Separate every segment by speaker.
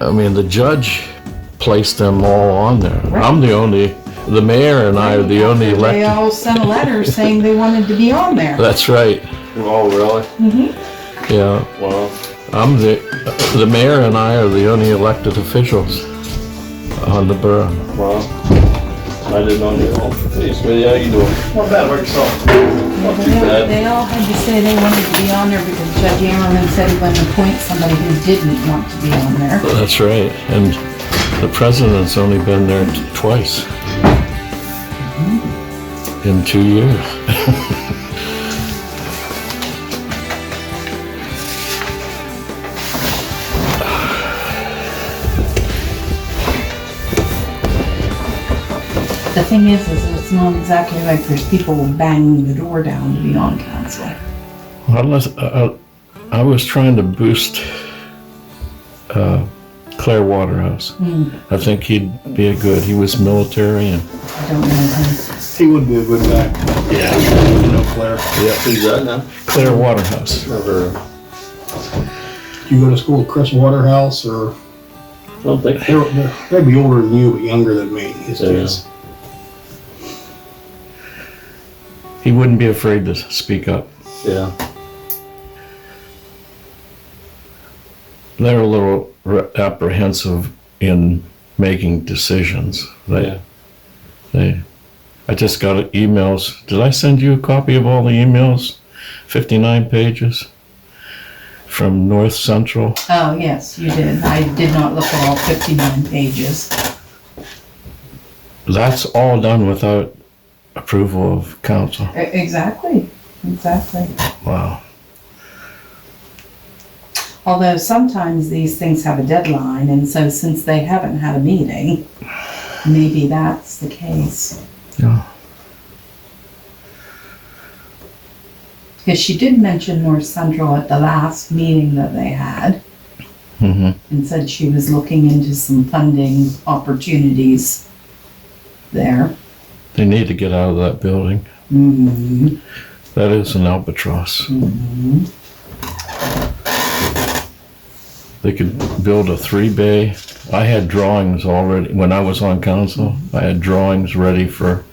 Speaker 1: I mean, the judge placed them all on there. I'm the only, the mayor and I are the only
Speaker 2: They
Speaker 1: elected.
Speaker 2: all sent a letter saying they wanted to be on there.
Speaker 1: That's right,
Speaker 3: Oh, really?
Speaker 1: yeah.
Speaker 3: Wow.
Speaker 1: I'm the, the mayor and I are the only elected officials on the borough.
Speaker 3: Wow. I didn't know that. Hey, Smitty, how you doing? Not bad, work yourself. Not too
Speaker 2: They all-
Speaker 3: bad.
Speaker 2: They all had to say they wanted to be on there because Judge Ammerman said he wanted to appoint somebody who didn't want to be on there.
Speaker 1: That's right, and the president's only been there t- twice. In two years.
Speaker 2: The thing is, is it's not exactly like there's people banging the door down to be on council.
Speaker 1: Unless, uh, I was trying to boost uh, Claire Waterhouse. I think he'd be a good, he was military and.
Speaker 2: I don't know him.
Speaker 4: He would be a good guy,
Speaker 1: Yeah.
Speaker 4: you know, Claire.
Speaker 3: Yeah, who's that now?
Speaker 1: Claire Waterhouse.
Speaker 3: Never.
Speaker 4: Do you go to school with Chris Waterhouse or,
Speaker 3: I don't think.
Speaker 4: they're, they're- they'd be older than you, but younger than me, his
Speaker 3: Yeah.
Speaker 4: kids.
Speaker 1: He wouldn't be afraid to speak up.
Speaker 3: Yeah.
Speaker 1: They're a little re- apprehensive in making decisions. They,
Speaker 3: Yeah.
Speaker 1: they, I just got emails. Did I send you a copy of all the emails? 59 pages from North Central.
Speaker 2: Oh, yes, you did. I did not look at all fifty-nine pages.
Speaker 1: That's all done without approval of council.
Speaker 2: E- Exactly, exactly.
Speaker 1: Wow.
Speaker 2: Although sometimes these things have a deadline, and so since they haven't had a meeting, maybe that's the case.
Speaker 1: Yeah.
Speaker 2: Because she did mention North Central at the last meeting that they had,
Speaker 1: hmm
Speaker 2: and said she was looking into some funding opportunities there.
Speaker 1: They need to get out of that building.
Speaker 2: Mm-hmm.
Speaker 1: That is an albatross. They could build a three bay. I had drawings already when I was on council. I had drawings ready for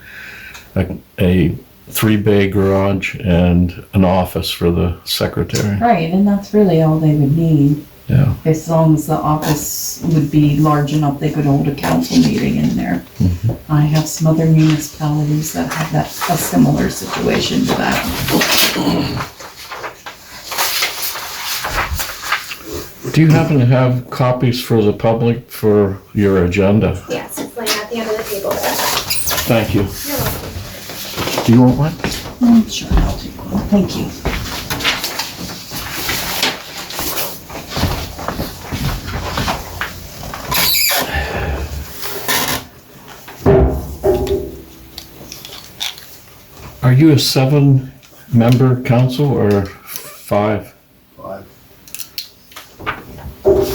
Speaker 1: a, a three bay garage and an office for the secretary.
Speaker 2: Right, and that's really all they would need,
Speaker 1: Yeah.
Speaker 2: as long as the office would be large enough they could hold a council meeting in there. I have some other municipalities that have that, a similar situation to that.
Speaker 1: Do you happen to have copies for the public for your agenda?
Speaker 5: Yes, it's laying at the end of the table.
Speaker 1: Thank you.
Speaker 5: You're welcome.
Speaker 1: Do you want one?
Speaker 2: I'm Mm, sure I'll take one, thank you.
Speaker 1: Are you a seven member council or five?